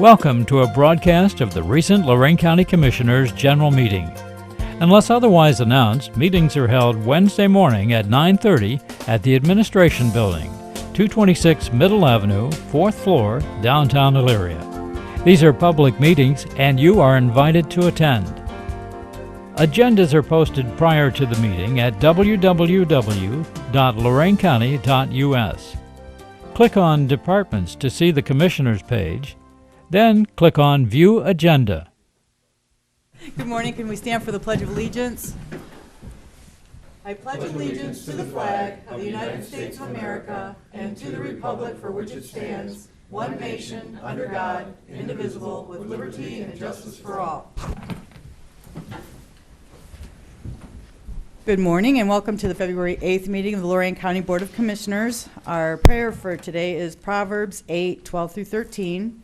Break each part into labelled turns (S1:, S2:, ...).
S1: Welcome to a broadcast of the recent Lorraine County Commissioners' General Meeting. Unless otherwise announced, meetings are held Wednesday morning at 9:30 at the Administration Building, 226 Middle Avenue, 4th floor, downtown Elyria. These are public meetings and you are invited to attend. Agendas are posted prior to the meeting at www.loraincounty.us. Click on Departments to see the Commissioners page, then click on View Agenda.
S2: Good morning, can we stand for the Pledge of Allegiance? I pledge allegiance to the flag of the United States of America and to the republic for which it stands, one nation, under God, indivisible, with liberty and justice for all. Good morning and welcome to the February 8th meeting of the Lorraine County Board of Commissioners. Our prayer for today is Proverbs 8, 12 through 13.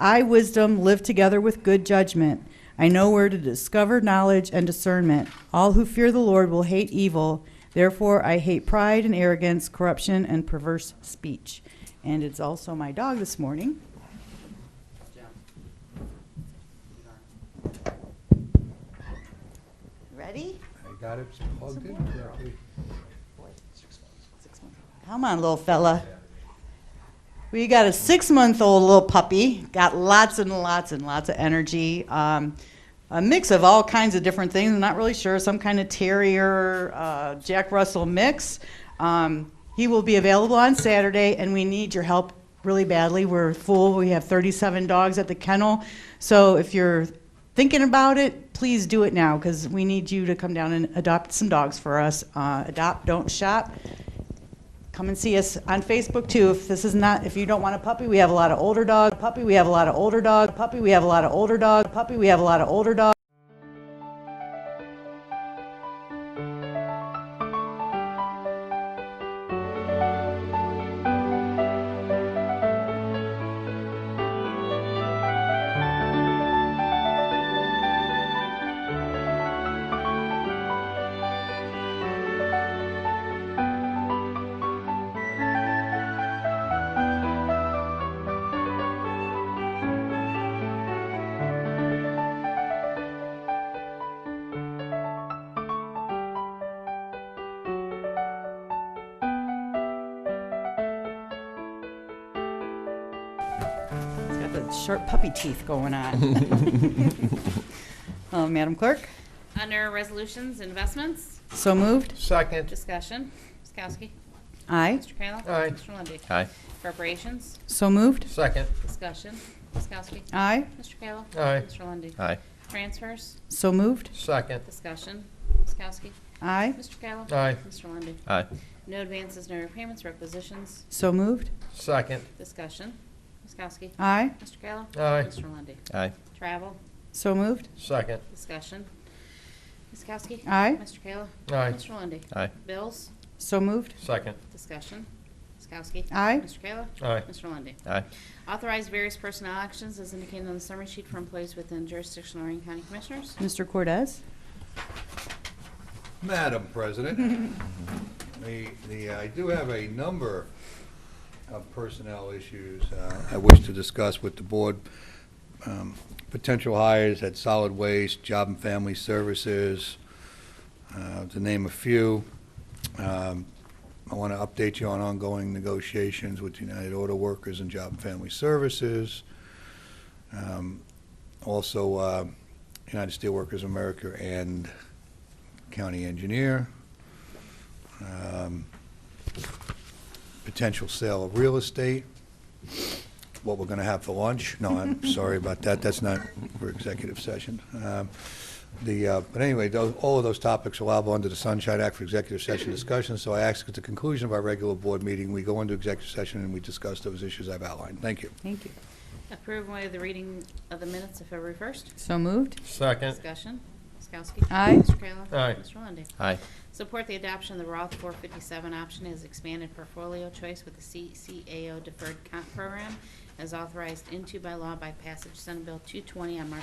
S2: I, wisdom, live together with good judgment. I know where to discover knowledge and discernment. All who fear the Lord will hate evil. Therefore, I hate pride and arrogance, corruption, and perverse speech. And it's also my dog this morning. Ready?
S3: I got it plugged in correctly.
S2: Come on, little fella. We got a six month old little puppy, got lots and lots and lots of energy. Um, a mix of all kinds of different things. I'm not really sure. Some kind of terrier, uh, Jack Russell mix. Um, he will be available on Saturday, and we need your help really badly. We're full. We have 37 dogs at the kennel. So if you're thinking about it, please do it now because we need you to come down and adopt some dogs for us. Uh, adopt, don't shop come and see us on Facebook too. If this is not, if you don't want a puppy, we have a lot of older dog puppy. We have a lot of older dog puppy. We have a lot of older dog puppy. We have a lot of older dog. It's got the sharp puppy teeth going on. uh, Madam Clerk,
S4: Under Resolutions, Investments,
S2: so moved.
S3: Second,
S4: Discussion, Ms. Kowski,
S2: Aye,
S4: Mr. Kayla.
S3: Aye.
S4: Mr. Lundey.
S5: Aye.
S4: Appropriations,
S2: so moved.
S3: second,
S4: Discussion, Ms. Kowski,
S2: Aye,
S4: Mr. Kayla.
S3: Aye.
S4: Mr. Lundey.
S5: Aye.
S4: Transfers,
S2: so moved.
S3: second,
S4: Discussion, Ms. Kowski,
S2: Aye,
S4: Mr. Kayla.
S3: Aye.
S4: Mr. Lundey.
S5: Aye.
S4: No advances, no repayments, requisitions,
S2: so moved.
S3: second,
S4: Discussion, Ms. Kowski,
S2: Aye,
S4: Mr. Kayla.
S3: Aye.
S4: Mr. Lundey.
S5: Aye.
S4: Travel,
S2: so moved.
S3: second,
S4: Discussion, Ms. Kowski.
S2: Aye,
S4: Mr. Kayla.
S3: Aye.
S4: Mr. Lundey.
S5: Aye.
S4: Bills,
S2: so moved.
S3: second,
S4: Discussion, Ms. Kowski.
S2: Aye.
S4: Mr. Kayla.
S3: aye,
S4: Mr. Lundey.
S5: Aye.
S4: Authorize various personnel actions as indicated on the summary sheet for employees within jurisdiction of Lorraine County Commissioners.
S2: Mr. Cortez,
S6: Madam President, the, the, I do have a number of personnel issues uh, I wish to discuss with the board. Um, Potential hires at Solid Waste, Job and Family Services, uh, to name a few. Um, I want to update you on ongoing negotiations with United Auto Workers and Job and Family Services. Um, Also, uh, United Steelworkers of America and county engineer, um, potential sale of real estate, what we're going to have for lunch. No, I'm sorry about that, that's not for executive session. Um, The, uh, but anyway, tho- all of those topics are allowable under the Sunshine Act for executive session discussion, so I ask at the conclusion of our regular board meeting, we go into executive session and we discuss those issues I've outlined. Thank you.
S2: thank you.
S4: Approve and waive the reading of the minutes of February 1st.
S2: So moved.
S3: second,
S4: Discussion. Ms. Kowski.
S2: Aye.
S4: Mr. Kayla.
S3: Aye.
S4: Mr. Lundey.
S5: Aye.
S4: Support the adoption of the Roth 457 option as expanded portfolio choice with the CCAO Deferred Comp Program as authorized into by law by passage Senate Bill 220 on March